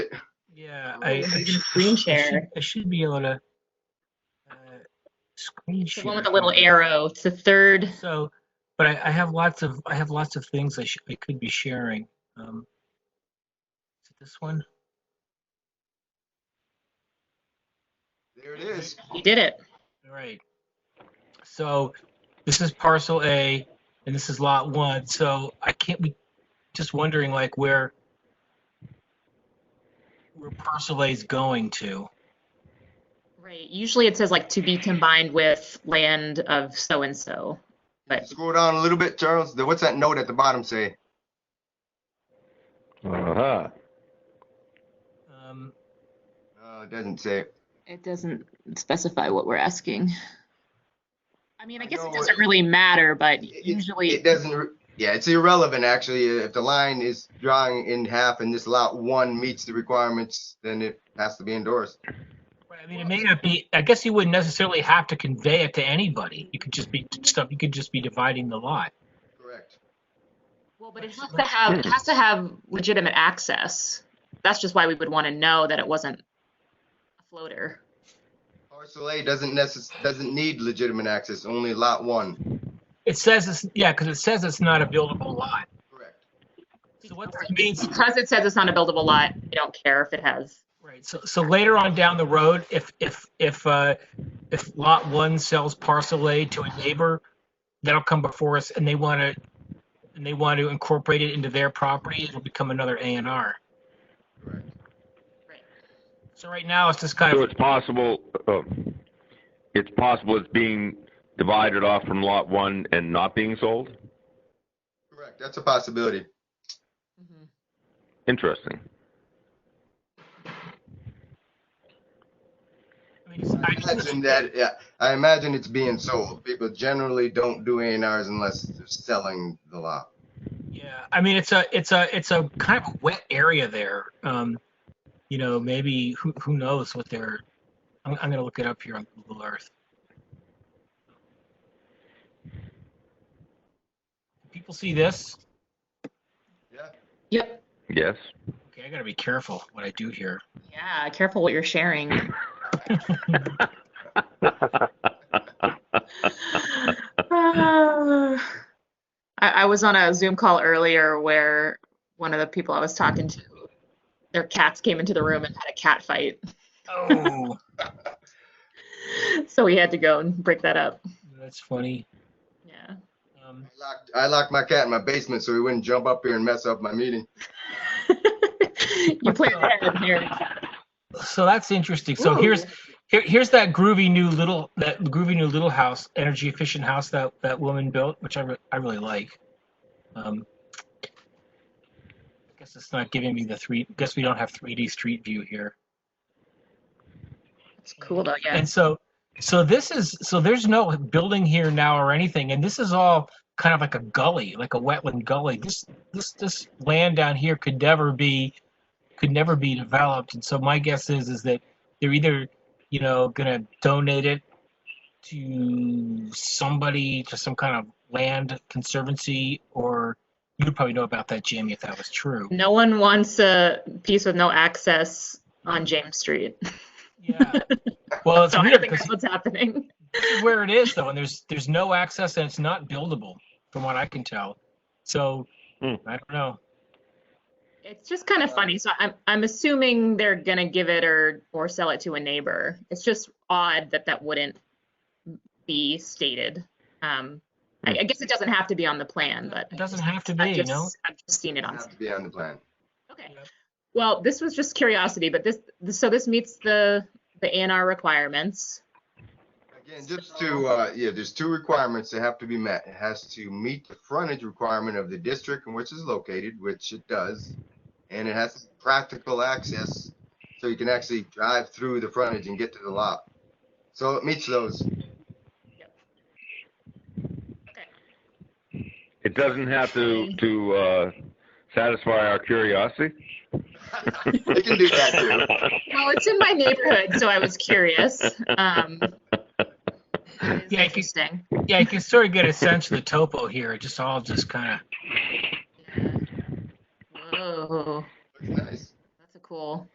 Yeah, Oh, I, I you can should- screen I should- share. I should be able to uh, screen It's share. the one with the little here. arrow. It's the third. So, but I, I have lots of, I have lots of things I should, I could be sharing. Um, Is it this one? There it is. You did it. All right. So this is parcel A and this is lot one. So I can't be just wondering like where where parcel A is going to. Right. Usually it says like to be combined with land of so and so. But- Scroll down a little bit, Charles. Then What's that note at the bottom say? Uh-huh. Um, Uh, it doesn't say. It doesn't specify what we're asking. I mean, I I guess know it it- doesn't really matter, but It- It usually, doesn't, re- yeah, it's irrelevant, actually. If the line is drawing in half and this lot one meets the requirements, then it has to be endorsed. I mean, it may not be, I guess you wouldn't necessarily have to convey it to anybody. You could just be stuff, you could just be dividing the lot. Correct. well, but it has to have, it has to have legitimate access. That's just why we would want to know that it wasn't a floater. Parcel A doesn't necess, doesn't need legitimate access, only lot one. It says it's, yeah, because it says it's not a buildable lot. Correct. So what this means, Because it says it's not a buildable lot, we don't care if it has Right, so, so later on down the road, if, if, if, uh, if lot one sells parcel A to a neighbor, that'll come before us and they want to, and they want to incorporate it into their property, it'll become another A and R. Correct. So right now, it's just kind So of, it's possible, uh, it's possible it's being divided off from lot one and not being sold? Correct. That's a possibility. Mm-hmm. Interesting. I mean, it's- I I- imagine that, yeah, I imagine it's being sold. People generally don't do A and Rs unless they're selling the lot. yeah, I mean, it's a, it's a, it's a kind of wet area there. Um, you know, maybe, who, who knows what they're, I'm, I'm gonna look it up here on Google Earth. People see this? Yeah. Yep. Yes. Okay, I gotta be careful what I do here. Yeah, careful what you're sharing. I, Ah. I was on a Zoom call earlier where one of the people I was talking to, their cats came into the room and had a cat fight. Oh, So we had to go and break that up. that's funny. Yeah. Um, I locked, I locked my cat in my basement so he wouldn't jump up here and mess up my meeting. you play ahead of here. so that's interesting. So here's here, here's that groovy new little that groovy new little house, energy efficient house that that woman built, which I re- I really like. Um, I guess it's not giving me the three. Guess we don't have 3D street view here. It's cool though, yeah. And so so this is so there's no building here now or anything, and this is all kind of like a gully, like a wetland gully. This this this land down here could never be could never be developed. And so my guess is is that they're either, you know, gonna donate it to somebody to some kind of land conservancy or you'd probably know about that, Jamie, if that was true. No one wants a piece with no access on James Street. Yeah. Well, it's So I weird don't think because that's what's happening. this is where it is though, and there's there's no access and it's not buildable from what I can tell. So Hmm. I don't know. It's just kind of funny. So I'm I'm assuming they're gonna give it or or sell it to a neighbor. It's just odd that that wouldn't be stated. Um, I, I guess it doesn't have to be on the plan, but It doesn't have to I've be, you just, know. I've just seen it Doesn't on. have to be on the plan. Okay. Yep. Well, this was just curiosity, but this so this meets the the ANR requirements. Again, just to, uh, yeah, there's two requirements that have to be met. It has to meet the frontage requirement of the district in which it's located, which it does. And it has practical access, so you can actually drive through the frontage and get to the lot. So it meets those. It doesn't have to, to, uh, satisfy our curiosity? It can do that Well, it's in my neighborhood, so I was curious. Um, it is Yeah, I can- interesting. Yeah, you can sort of get a sense of the topo here. It just all just kind of Whoa, too. Nice. that's a cool.